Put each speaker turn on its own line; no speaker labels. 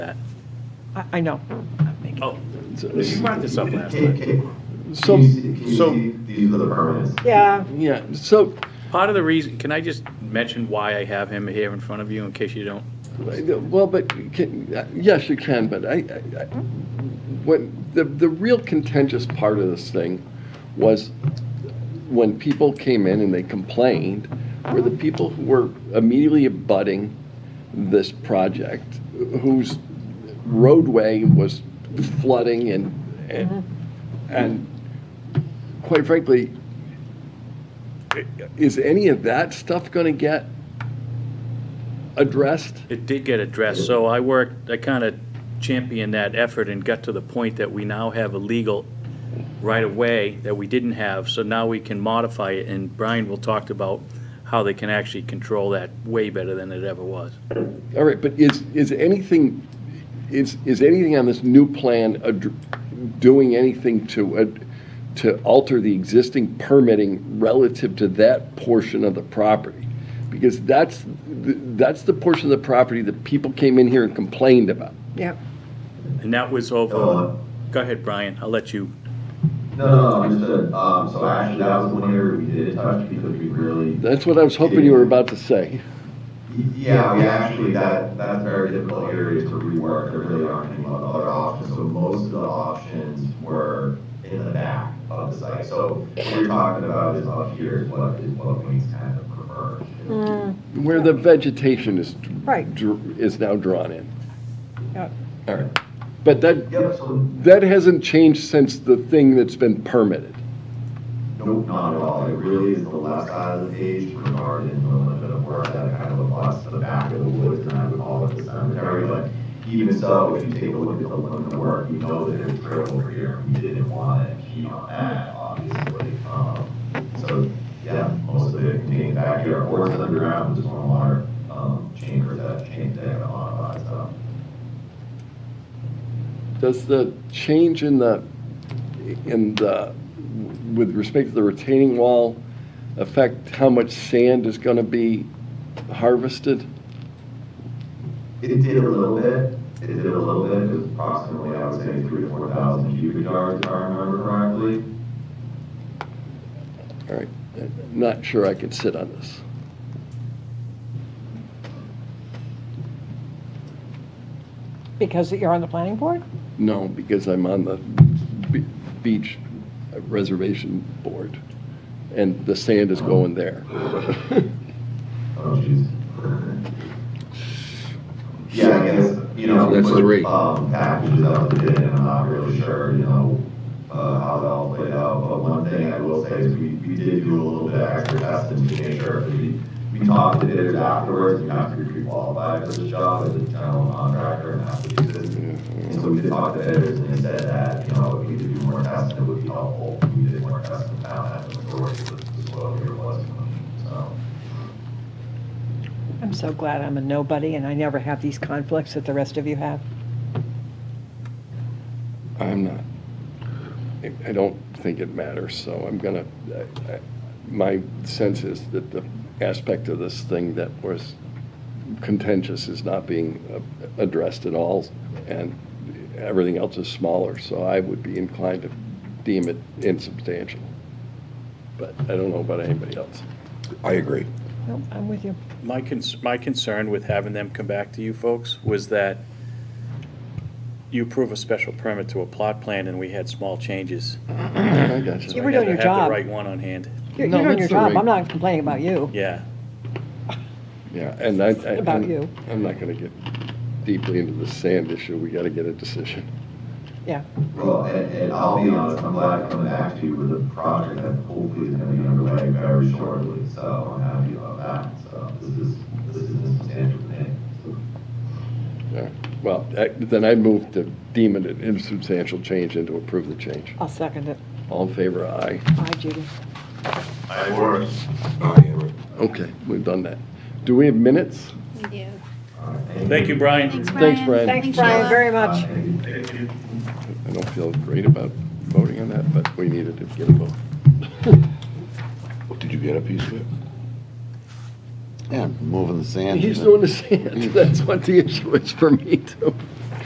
that. I, I know. I'm making-
Oh, you brought this up last
Can,
night.
can,
So-
can you see, can you
so-
see these other permits?
Yeah,
Yeah, so
Part of the reason, can I just mention why I have him here in front of you in case you don't?
Well, but, can- uh, yes, you can, but I, I- I- when, the, the real contentious part of this thing was when people came in and they complained, were the people who were immediately abutting this project, whose roadway was flooding and, and, and quite frankly, i- is any of that stuff gonna get addressed?
It did get addressed, so I worked, I kind of championed that effort and got to the point that we now have a legal right-of-way that we didn't have, so now we can modify it, and Brian will talk about how they can actually control that way better than it ever was.
All right, but is, is anything, is, is anything on this new plan ad- doing anything to, ad- to alter the existing permitting relative to that portion of the property? Because that's, th- that's the portion of the property that people came in here and complained about.
yeah.
And that was over,
Uh,
go ahead, Brian, I'll let you,
No, no, no, understood. Um, so actually, that was one area we did touch because we really,
That's what I was hoping you were about to say.
yeah, we actually, that, that's a very difficult area to rework. There really aren't any other options. So most of the options were in the back of the site. So what you're talking about is up here is what, is what Wayne's kind of preferred.
Where the vegetation is,
Right.
dr- is now drawn in.
Yeah.
All right, but that,
Yep, so,
that hasn't changed since the thing that's been permitted.
nope, not at all. It really is the left side of the page regarding the limit of work that kind of applies to the back of the woods, and I would call it the cemetery, but even so, if you take a look at the limit of work, you know that it's trail over here. We didn't want to impede on that, obviously. Um, so, yeah, most of it contained back here, or it's underground, there's one water, um, chamber that changed that modifies stuff.
Does the change in the, in the, with respect to the retaining wall affect how much sand is going to be harvested?
It did a little bit, it did a little bit, it was approximately, I would say, three to four thousand cubic yards, if I remember correctly.
All right, I'm not sure I could sit on this.
Because you're on the planning board?
No, because I'm on the be- beach reservation board, and the sand is going there.
Oh, jeez. Yeah, I guess, you know, we
That's the
put,
rate.
um, packages out to bid, and I'm not really sure, you know, uh, how that all played out, but one thing I will say is we, we did do a little bit of extra testing to make sure, that we, we talked to bidders afterwards, we have to be qualified for the job as a general contractor in Massachusetts. And so we did talk to bidders, and they said that, you know, if we could do more testing, it would be helpful, we did more testing, found that the majority of the soil here was, so.
I'm so glad I'm a nobody and I never have these conflicts that the rest of you have.
I'm not. I- I don't think it matters, so I'm gonna, I- I- my sense is that the aspect of this thing that was contentious is not being uh, addressed at all, and everything else is smaller, so I would be inclined to deem it insubstantial. But I don't know about anybody else.
I agree.
No, I'm with you.
my cons, my concern with having them come back to you folks was that you approve a special permit to a plot plan and we had small changes.
I got
You
you.
were
I had
doing your
to Have
job.
the right one on hand,
You're
No,
you're doing your
that's all
job.
right.
I'm not complaining about you.
yeah.
Yeah, and I. I-
About you.
I'm not gonna get deeply into the sand issue. We gotta get a decision.
Yeah.
Well, and, and I'll be honest, I'm glad to come back to you with a project that hopefully is gonna be underway very shortly, so I'm happy about that, so this is, this is a substantial thing.
Yeah, Well, I- then I move to deem it an insubstantial change and to approve the change.
I'll second it.
All in favor, aye.
Bye, Judy.
I work.
I agree.
Okay, we've done that. Do we have minutes?
We do.
Thank you, Brian.
Thanks, Brian.
Thanks, Brian.
Thanks, Brian,
Sheila.
very much.
Thank you.
I don't feel great about voting on that, but we needed to get a vote.
Did you get a piece of it? Yeah, moving the sand.
He's doing the sand, that's what the issue is for me too.